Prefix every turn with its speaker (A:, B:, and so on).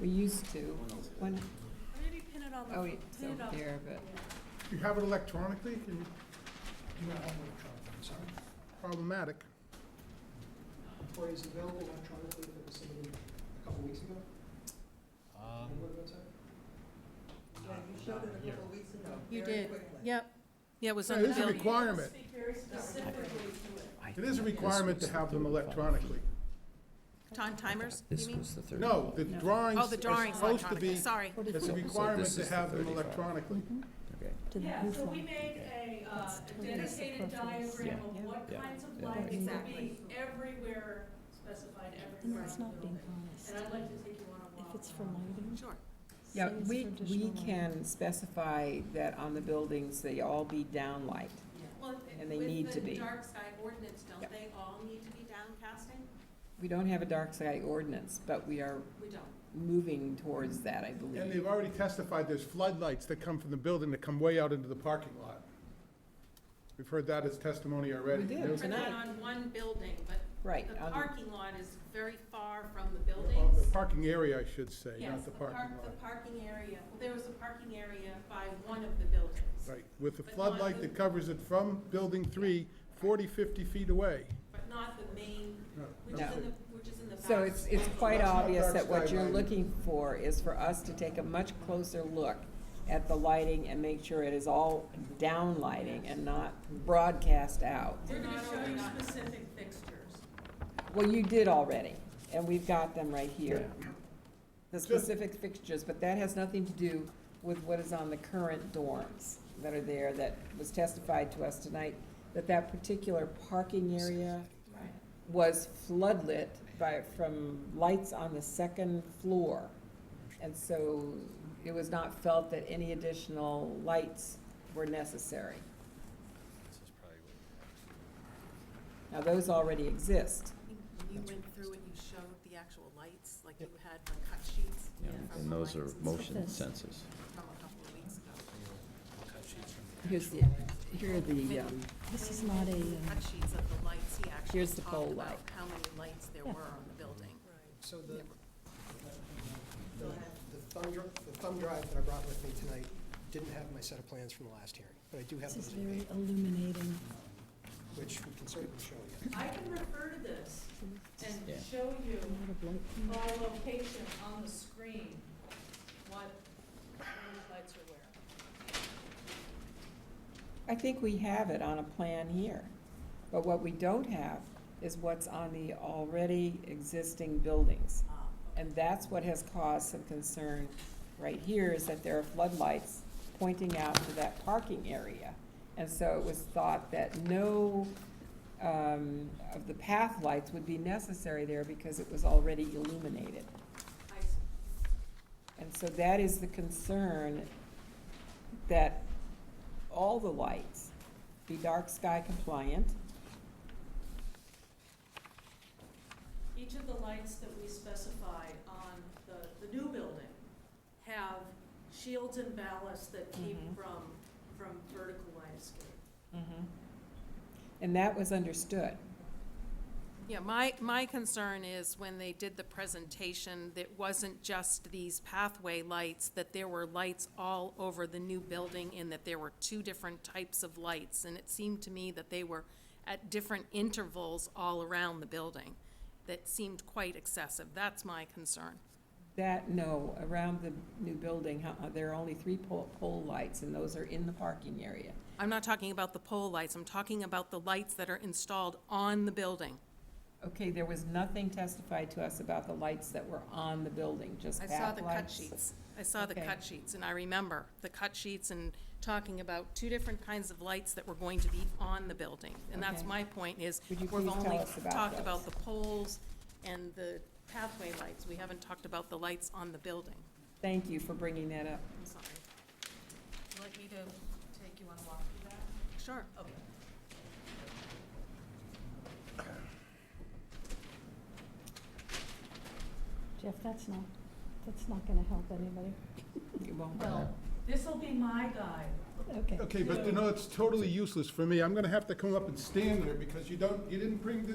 A: to, when,
B: Maybe pin it on the,
A: oh
B: fo-
A: wait, it's
B: pin it
A: over
B: on.
A: there, but,
C: Do you have it electronically? Can you- You don't have it electronically, I'm sorry. Problematic.
D: Or is it available electronically that was submitted a couple weeks ago?
E: Um,
D: Remember what it was?
E: not, not here.
B: You did, yep. Yeah, it was
C: Yeah,
B: on the
C: It is a
B: building.
C: requirement. It is a requirement to have them electronically.
B: Time timers, you
F: This
B: mean?
F: was the third.
C: No, the drawings
B: Oh, the
C: are
B: drawings
C: supposed to
B: electronically,
C: be,
B: sorry.
C: it's a
F: So
C: requirement
F: this
C: to
F: is the
C: have them
F: 35.
C: electronically.
F: Okay.
B: Yeah, so
G: we made a, uh, a dedicated diagram
A: Yeah.
G: of what
F: Yeah.
G: kinds of
F: Yeah.
G: lights will
B: Exactly.
G: be everywhere, specified
H: No,
G: everywhere
H: it's
G: in the
H: not being
G: building.
H: honest.
G: uh, And I'd like to take you on a walk.
H: If it's for lighting,
B: Sure.
A: yeah,
H: say it's
A: we,
H: for
A: we
H: additional lighting.
A: can specify that on the buildings, they all be downlight.
B: Well,
A: And they need to
B: With the
A: be.
B: dark sky ordinance,
A: Yeah.
B: don't they all need to be downcasting?
A: We don't have a dark sky ordinance, but we are
B: We don't.
A: moving towards that, I
C: And
A: believe.
C: they've already testified there's floodlights that come from the building that come way out into the parking lot. We've heard that as testimony already.
A: We did.
C: There was-
B: Put it
A: Tonight.
B: on one building, but
A: Right,
B: the
A: on the-
B: parking lot is very far from the
C: Of The
B: buildings.
C: parking area, I should say,
B: Yes,
C: not the
B: park-
C: parking lot.
B: The parking area, well, there was a parking area by one of the buildings,
C: Right, with the
B: But not
C: floodlight
B: the-
C: that covers it from building three, 40, 50 feet away.
B: but not the main,
C: No,
B: which is
A: No.
B: in the, which is in the back.
A: So it's, it's quite
C: That's not
A: obvious
C: dark
A: that what
C: sky
A: you're
C: lighting.
A: looking for is for us to take a much closer look at the lighting and make sure it is all down lighting and not broadcast out.
G: We're gonna
B: Not
G: show you
B: overnight.
G: specific fixtures.
A: Well, you did already, and we've got them right here. The
C: Sure.
A: specific fixtures, but that has nothing to do with what is on the current dorms that are there that was testified to us tonight, that that particular parking area was floodlit by, from lights on the second floor. And so it was not felt that any additional lights were necessary.
E: This is probably what you have.
A: Now, those already exist.
B: I think When you went through and you showed the actual lights, like you had like cut sheets.
F: Yeah,
B: from
F: and
B: the
F: those are
B: lights and stuff
F: motion
H: This.
F: sensors.
B: From a couple of weeks ago.
E: Cut sheets from the
A: Here's the, here are the, um,
H: This is not a, uh,
B: Cut sheets of the lights, he actually
A: Here's the pole
B: talked about
A: light.
B: how many lights there
H: Yeah.
B: were on the building.
D: So the, the the thumb, dri- the thumb drive that I brought with me tonight didn't have my set of plans from the last hearing, but I do have
H: this is
D: those in
H: very
D: May,
H: illuminating.
D: which we can certainly show you.
G: I can refer to this and
F: Yeah.
G: show you
H: A lot of light.
G: by location on the screen what those lights are where.
A: I think we have it on a plan here, but what we don't have is what's on the already existing buildings.
B: Um,
A: And that's what has caused some concern right here, is that there are floodlights pointing out to that parking area. And so it was thought that no, um, of the path lights would be necessary there because it was already illuminated.
B: I s-
A: And so that is the concern, that all the lights be dark sky compliant.
G: Each of the lights that we specify on the, the new building have shields and ballasts that keep
A: Mhm.
G: from, from vertical light escape.
A: And that was understood.
B: Yeah, my, my concern is when they did the presentation, that wasn't just these pathway lights, that there were lights all over the new building and that there were two different types of lights. And it seemed to me that they were at different intervals all around the building. That seemed quite excessive. That's my concern.
A: That, no, around the new building, how- uh, there are only three pole, pole lights, and those are in the parking area.
B: I'm not talking about the pole lights. I'm talking about the lights that are installed on the building.
A: Okay, there was nothing testified to us about the lights that were on the building, just
B: I
A: path lights.
B: saw the cut sheets. I saw the
A: Okay.
B: cut sheets, and I remember the cut sheets and talking about two different kinds of lights that were going to be on the building. And that's
A: Okay.
B: my point is,
A: Would you
B: we've
A: please tell
B: only
A: us about
B: talked
A: those?
B: about the poles and the pathway lights. We haven't talked about the lights on the building.
A: Thank you for bringing that up.
B: I'm sorry.
G: Would you like me to take you on a walk through that?
B: Sure.
G: Okay.
H: Jeff, that's not, that's not gonna help anybody.
A: It won't-
G: Well, this'll be my guide.
H: Okay.
C: Okay, but you know, it's totally useless for me. I'm gonna have to come up and stand there because you don't, you didn't bring the